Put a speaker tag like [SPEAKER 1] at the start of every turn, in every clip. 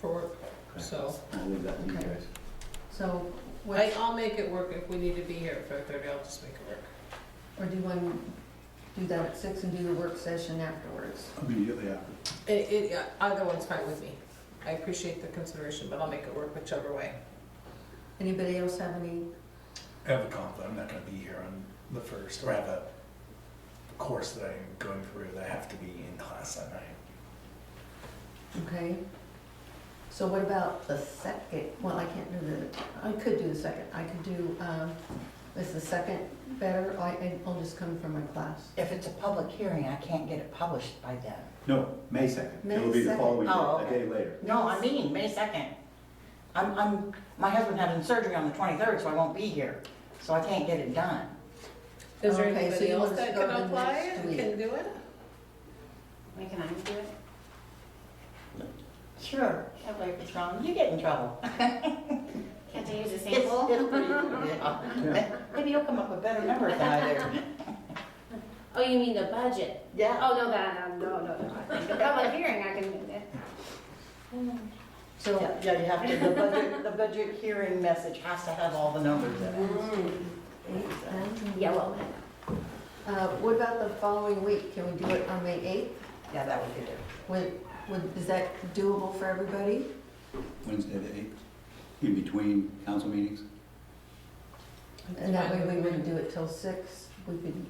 [SPEAKER 1] for, so.
[SPEAKER 2] I'll leave that to you
[SPEAKER 3] Okay.
[SPEAKER 2] guys.
[SPEAKER 3] So,
[SPEAKER 1] I,
[SPEAKER 3] what,
[SPEAKER 1] I'll make it work if we need to be here at five thirty, I'll just make it work.
[SPEAKER 3] or do you want to do that at six and do the work session afterwards?
[SPEAKER 2] Immediately after.
[SPEAKER 1] It, it, yeah, either one's fine with me. I appreciate the consideration, but I'll make it work whichever way.
[SPEAKER 3] Anybody else have any,
[SPEAKER 4] I have a conflict, I'm not gonna be here on the first, or I have a course that I'm going through that I have to be in class that night.
[SPEAKER 3] okay? So what about the second, well, I can't do the, I could do the second, I could do, um, is the second better? I, I- I'll just come from my class.
[SPEAKER 5] If it's a public hearing, I can't get it published by then.
[SPEAKER 2] No, May second.
[SPEAKER 3] May
[SPEAKER 2] It'll be the
[SPEAKER 3] 2nd.
[SPEAKER 2] following, day,
[SPEAKER 5] Oh,
[SPEAKER 2] a
[SPEAKER 5] okay.
[SPEAKER 2] day later.
[SPEAKER 5] No, I mean, May second. I'm, I'm, my husband having surgery on the twenty-third, so I won't be here, so I can't get it done.
[SPEAKER 1] Is there
[SPEAKER 3] Okay, so
[SPEAKER 1] anybody
[SPEAKER 3] you
[SPEAKER 1] else
[SPEAKER 3] wanna
[SPEAKER 1] that
[SPEAKER 3] start
[SPEAKER 1] can
[SPEAKER 3] on
[SPEAKER 1] apply
[SPEAKER 3] next
[SPEAKER 1] and
[SPEAKER 3] week?
[SPEAKER 1] can do it?
[SPEAKER 6] Wait, can I do it?
[SPEAKER 5] Sure. That way if it's wrong, you get in trouble.
[SPEAKER 6] Can't I use a
[SPEAKER 5] It's-
[SPEAKER 6] sample?
[SPEAKER 5] it's pretty good, yeah. Maybe you'll come up with better numbers than I do.
[SPEAKER 6] Oh, you mean the budget?
[SPEAKER 5] Yeah.
[SPEAKER 6] Oh, no, that, um, no, no, no. The public hearing, I can do that.
[SPEAKER 3] So,
[SPEAKER 5] Yeah, you have to, the budget, the budget hearing message has to have all the numbers in it.
[SPEAKER 3] Mm. eight, ten?
[SPEAKER 6] Yeah, well,
[SPEAKER 3] Uh, what about the following week? Can we do it on May eighth?
[SPEAKER 5] Yeah, that would be good.
[SPEAKER 3] Would, would, is that doable for everybody?
[SPEAKER 2] Wednesday the eighth, in between council meetings.
[SPEAKER 3] And that way we wouldn't do it till six, we could.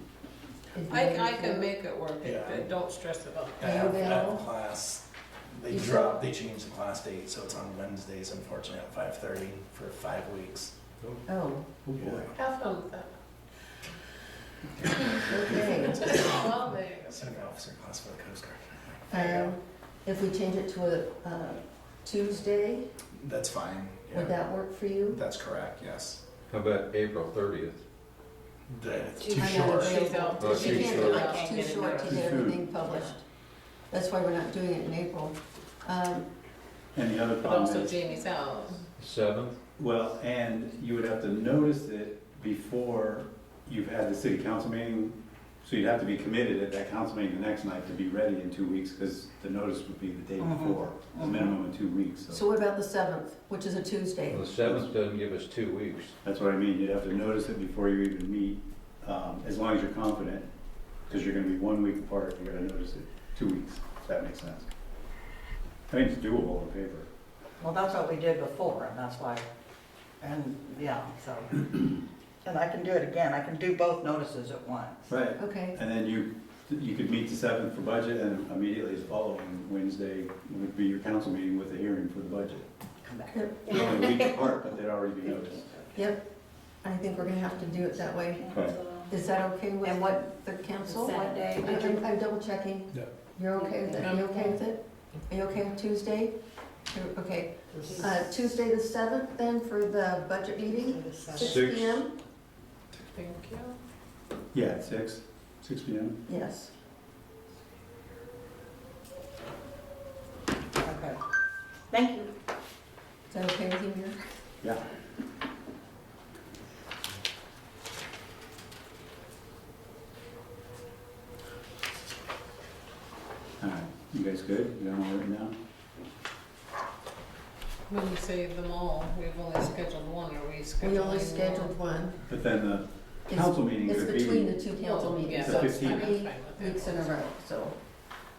[SPEAKER 3] is
[SPEAKER 1] I,
[SPEAKER 3] that
[SPEAKER 1] I can
[SPEAKER 3] okay?
[SPEAKER 1] make it work,
[SPEAKER 4] Yeah.
[SPEAKER 1] but don't stress about
[SPEAKER 4] I
[SPEAKER 3] Are you
[SPEAKER 4] have, I have a
[SPEAKER 3] available?
[SPEAKER 4] class, they
[SPEAKER 3] You
[SPEAKER 4] dropped, they changed the class date, so it's on Wednesdays unfortunately at five thirty for five weeks.
[SPEAKER 3] Oh,
[SPEAKER 2] Oh, boy.
[SPEAKER 1] it. Have fun with that.
[SPEAKER 3] okay.
[SPEAKER 1] Well, there you go.
[SPEAKER 4] Senior officer class for the Coast Guard. There you
[SPEAKER 3] Um, If we change it to a uh, Tuesday,
[SPEAKER 4] go. That's fine,
[SPEAKER 3] would
[SPEAKER 4] yeah,
[SPEAKER 3] that work for you?
[SPEAKER 4] that's correct, yes.
[SPEAKER 7] How about April thirtieth?
[SPEAKER 4] That's
[SPEAKER 3] I
[SPEAKER 4] too
[SPEAKER 3] know
[SPEAKER 4] short.
[SPEAKER 3] it's-
[SPEAKER 1] She's out.
[SPEAKER 7] Oh,
[SPEAKER 3] We
[SPEAKER 7] too
[SPEAKER 3] can't
[SPEAKER 7] short.
[SPEAKER 3] do it, it's too short to
[SPEAKER 2] Too
[SPEAKER 3] get
[SPEAKER 2] soon.
[SPEAKER 3] everything published. That's why we're not doing it in April. Um,
[SPEAKER 2] And the other
[SPEAKER 1] But
[SPEAKER 2] problem
[SPEAKER 1] also
[SPEAKER 2] is,
[SPEAKER 1] Jamie's out.
[SPEAKER 7] Seventh?
[SPEAKER 2] Well, and you would have to notice it before you've had the city council meeting. So you'd have to be committed at that council meeting the next night to be ready in two weeks, because the notice would be the day
[SPEAKER 5] Mhm.
[SPEAKER 2] before, a
[SPEAKER 5] Mhm.
[SPEAKER 2] minimum of two weeks. So
[SPEAKER 3] So what about the 7th, which is a Tuesday?
[SPEAKER 7] Well, the seventh doesn't give us two weeks.
[SPEAKER 2] that's what I mean, you'd have to notice it before you even meet, um, as long as you're confident, because you're gonna be one week apart, you're gonna notice it, two weeks, if that makes sense. I mean, it's doable on paper.
[SPEAKER 5] Well, that's what we did before, and that's why, and, yeah, so. And I can do it again, I can do both notices at once.
[SPEAKER 2] Right.
[SPEAKER 3] Okay,
[SPEAKER 2] And then you, you could meet the seventh for budget and immediately the following Wednesday would be your council meeting with the hearing for the budget.
[SPEAKER 5] Come back.
[SPEAKER 3] Yep.
[SPEAKER 2] They're Only a week apart, but they'd already be noticed.
[SPEAKER 3] yep. I think we're gonna have to do it that way.
[SPEAKER 2] Okay.
[SPEAKER 3] Is that okay with
[SPEAKER 5] And what-
[SPEAKER 3] the council?
[SPEAKER 6] Seven.
[SPEAKER 5] day?
[SPEAKER 3] I- I'm, I'm double checking.
[SPEAKER 4] Yeah.
[SPEAKER 3] You're okay with it? Are you okay with it? Are you okay with Tuesday? You're- Okay, uh, Tuesday the seventh then for the budget meeting, six
[SPEAKER 7] Six.
[SPEAKER 3] P M?
[SPEAKER 1] Thank you.
[SPEAKER 2] Yeah, at six, six P M.
[SPEAKER 3] Yes.
[SPEAKER 5] Okay. Thank you.
[SPEAKER 3] Is that okay with you, Mayor?
[SPEAKER 2] Yeah. All right, you guys good? You got them all written down?
[SPEAKER 1] When you say them all, we've only scheduled one, are we scheduling?
[SPEAKER 3] We only
[SPEAKER 1] more?
[SPEAKER 3] scheduled one.
[SPEAKER 2] But then the
[SPEAKER 3] It's-
[SPEAKER 2] council meeting
[SPEAKER 3] It's
[SPEAKER 2] would be.
[SPEAKER 3] between the two council
[SPEAKER 1] Well, yeah,
[SPEAKER 3] meetings,
[SPEAKER 2] the
[SPEAKER 3] so it's
[SPEAKER 2] 15th.
[SPEAKER 3] three
[SPEAKER 1] I'm fine with that.
[SPEAKER 3] weeks in a row, so.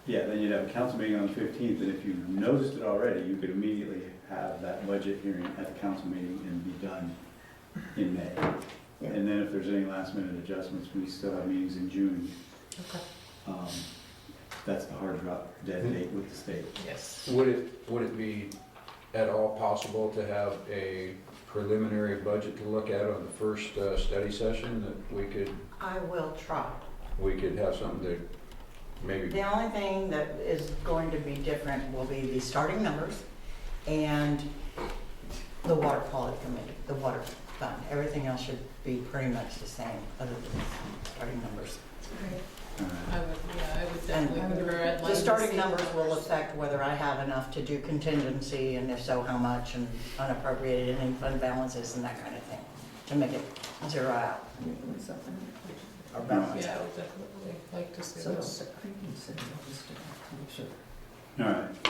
[SPEAKER 2] Yeah, then you'd have a council meeting on the fifteenth, and if you noticed it already, you could immediately have that budget hearing at the council meeting and be done in May.
[SPEAKER 3] Yeah.
[SPEAKER 2] And then if there's any last minute adjustments, we still have meetings in June.
[SPEAKER 1] Okay.
[SPEAKER 2] Um, That's the hard drop dead date with the state.
[SPEAKER 1] Yes.
[SPEAKER 7] Would it, would it be at all possible to have a preliminary budget to look at on the first uh, study session that we could,
[SPEAKER 5] I will try.
[SPEAKER 7] we could have something to maybe,
[SPEAKER 5] The only thing that is going to be different will be the starting numbers and the water quality committee, the water fund. Everything else should be pretty much the same, other than the starting numbers.
[SPEAKER 2] All right.
[SPEAKER 1] I would, yeah, I would definitely prefer. I'd like
[SPEAKER 5] The
[SPEAKER 1] to
[SPEAKER 5] starting
[SPEAKER 1] see
[SPEAKER 5] numbers will affect whether I have enough to do contingency, and if so, how much, and unappropriated, and fund balances, and that kind of thing, to make it zero out, or balance
[SPEAKER 1] Yeah, I
[SPEAKER 5] out.
[SPEAKER 1] would definitely like to see
[SPEAKER 3] So
[SPEAKER 1] those.
[SPEAKER 3] I can send those to-
[SPEAKER 2] All right,